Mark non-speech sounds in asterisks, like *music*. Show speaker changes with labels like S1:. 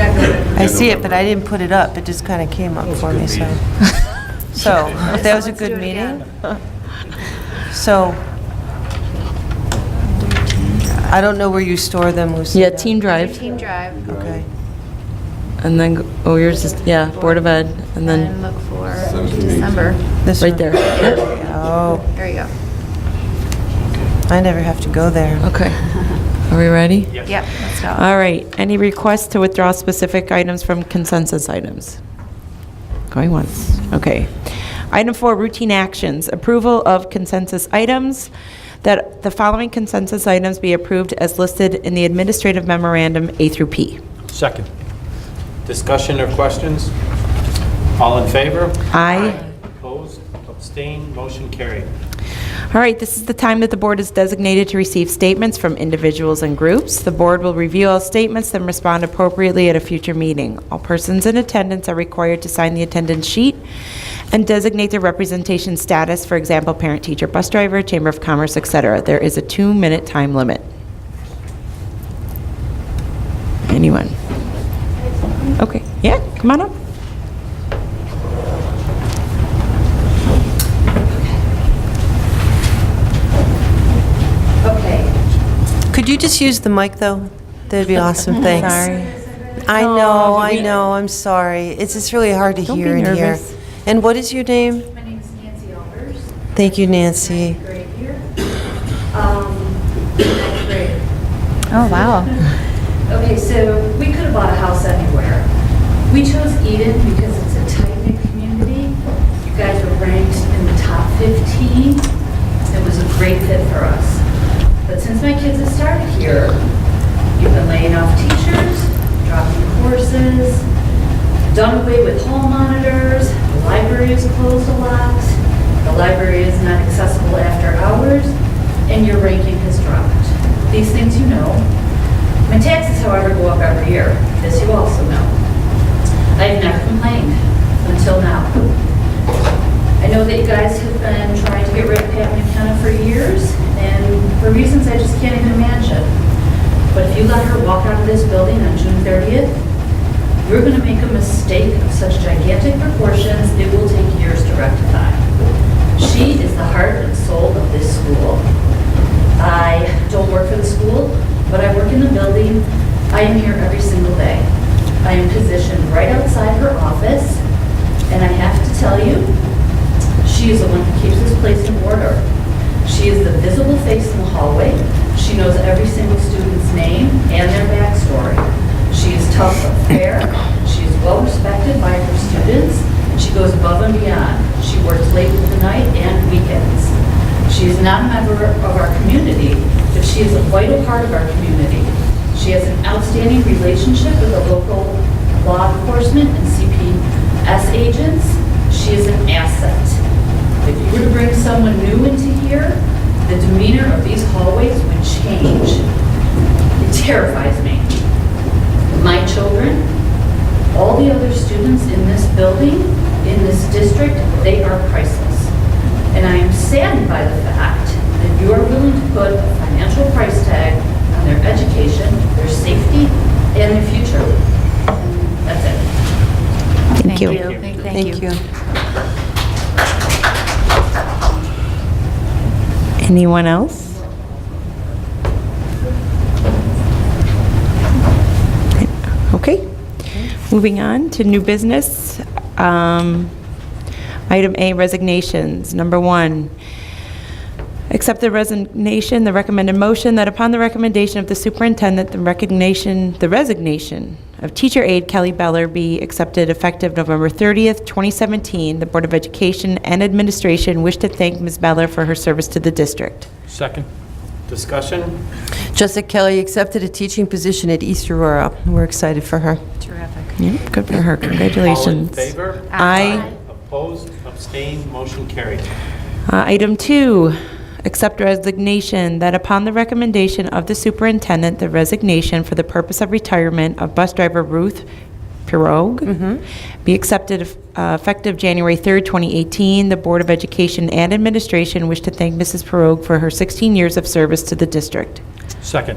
S1: I see it, but I didn't put it up, it just kind of came up for me, so. *laughs* So, if that was a good meeting. So, I don't know where you store them,
S2: Yeah,
S1: Lucinda.
S2: Team Drive,
S3: Team Drive,
S1: Okay.
S2: and then, go- oh, yours is, yeah, Board of Ed,
S3: and
S2: and then,
S3: look for December.
S1: This
S2: right
S1: one.
S2: there.
S1: Oh,
S3: There you go.
S1: I never have to go there.
S2: Okay. Are we ready?
S3: Yep, let's go.
S2: All right. Any requests to withdraw specific items from consensus items? Going once. Okay. Item four, routine actions. Approval of consensus items. That the following consensus items be approved as listed in the administrative memorandum A through P.
S4: Second. Discussion or questions? All in favor?
S2: Aye.
S4: Opposed? Abstained? Motion carried.
S2: All right, this is the time that the board is designated to receive statements from individuals and groups. The board will review all statements, then respond appropriately at a future meeting. All persons in attendance are required to sign the attendance sheet and designate their representation status, for example, parent, teacher, bus driver, chamber of commerce, et cetera. There is a two-minute time limit. Anyone? Okay, yeah, come on up.
S1: Could you just use the mic, though? That'd be awesome,
S2: *laughs*
S1: thanks. I know, I know, I'm sorry. It's just really hard to
S2: Don't be
S1: hear in here.
S2: nervous.
S1: And what is your name?
S5: My name is Nancy Albers,
S1: Thank you, Nancy.
S5: grade here. Um, ninth grade.
S3: Oh, wow.
S5: *laughs* Okay, so we could have bought a house anywhere. We chose Eden because it's a tight-knit community. You guys were ranked in the top 15. It was a great fit for us. But since my kids have started here, you've been laying off teachers, dropping courses, done away with hall monitors, the library is closed a lot, the library is not accessible after hours, and your ranking has dropped. These things you know. My taxes, however, go up every year, as you also know. I've never complained until now. I know that you guys have been trying to get rid of Pat McKenna for years, and for reasons I just can't even imagine. But if you let her walk out of this building on June 30th, you're going to make a mistake of such gigantic proportions, it will take years to rectify. She is the heart and soul of this school. I don't work for the school, but I work in the building. I am here every single day. I am positioned right outside her office, and I have to tell you, she is the one who keeps this place in order. She is the visible face in the hallway. She knows every single student's name and their backstory. She is tough but fair. She is well respected by her students. She goes above and beyond. She works late into the night and weekends. She is not a member of our community, but she is a vital part of our community. She has an outstanding relationship with the local law enforcement and CPS agents. She is an asset. If you were to bring someone new into here, the demeanor of these hallways would change. It terrifies me. My children, all the other students in this building, in this district, they are priceless. And I am saddened by the fact that you are willing to put a financial price tag on their education, their safety, and their future. That's it.
S2: Thank you.
S1: Thank you.
S2: Anyone else? Okay. Moving on to new business. Um, Item A, resignations. Number one, accept the resignation, the recommended motion that upon the recommendation of the superintendent, the recognition, the resignation of teacher aide Kelly Beller be accepted effective November 30th, 2017. The Board of Education and Administration wish to thank Ms. Beller for her service to the district.
S4: Second. Discussion?
S1: Jessica Kelly accepted a teaching position at East Aurora. We're excited for her.
S3: Terrific.
S2: Yep, good for her. Congratulations.
S4: All in favor?
S2: Aye.
S4: Opposed? Abstained? Motion carried.
S2: Uh, Item two, accept resignation that upon the recommendation of the superintendent, the resignation for the purpose of retirement of bus driver Ruth Pirogue
S4: Mm-hmm.
S2: be accepted uh, effective January 3rd, 2018. The Board of Education and Administration wish to thank Mrs. Pirogue for her 16 years of service to the district.
S4: Second.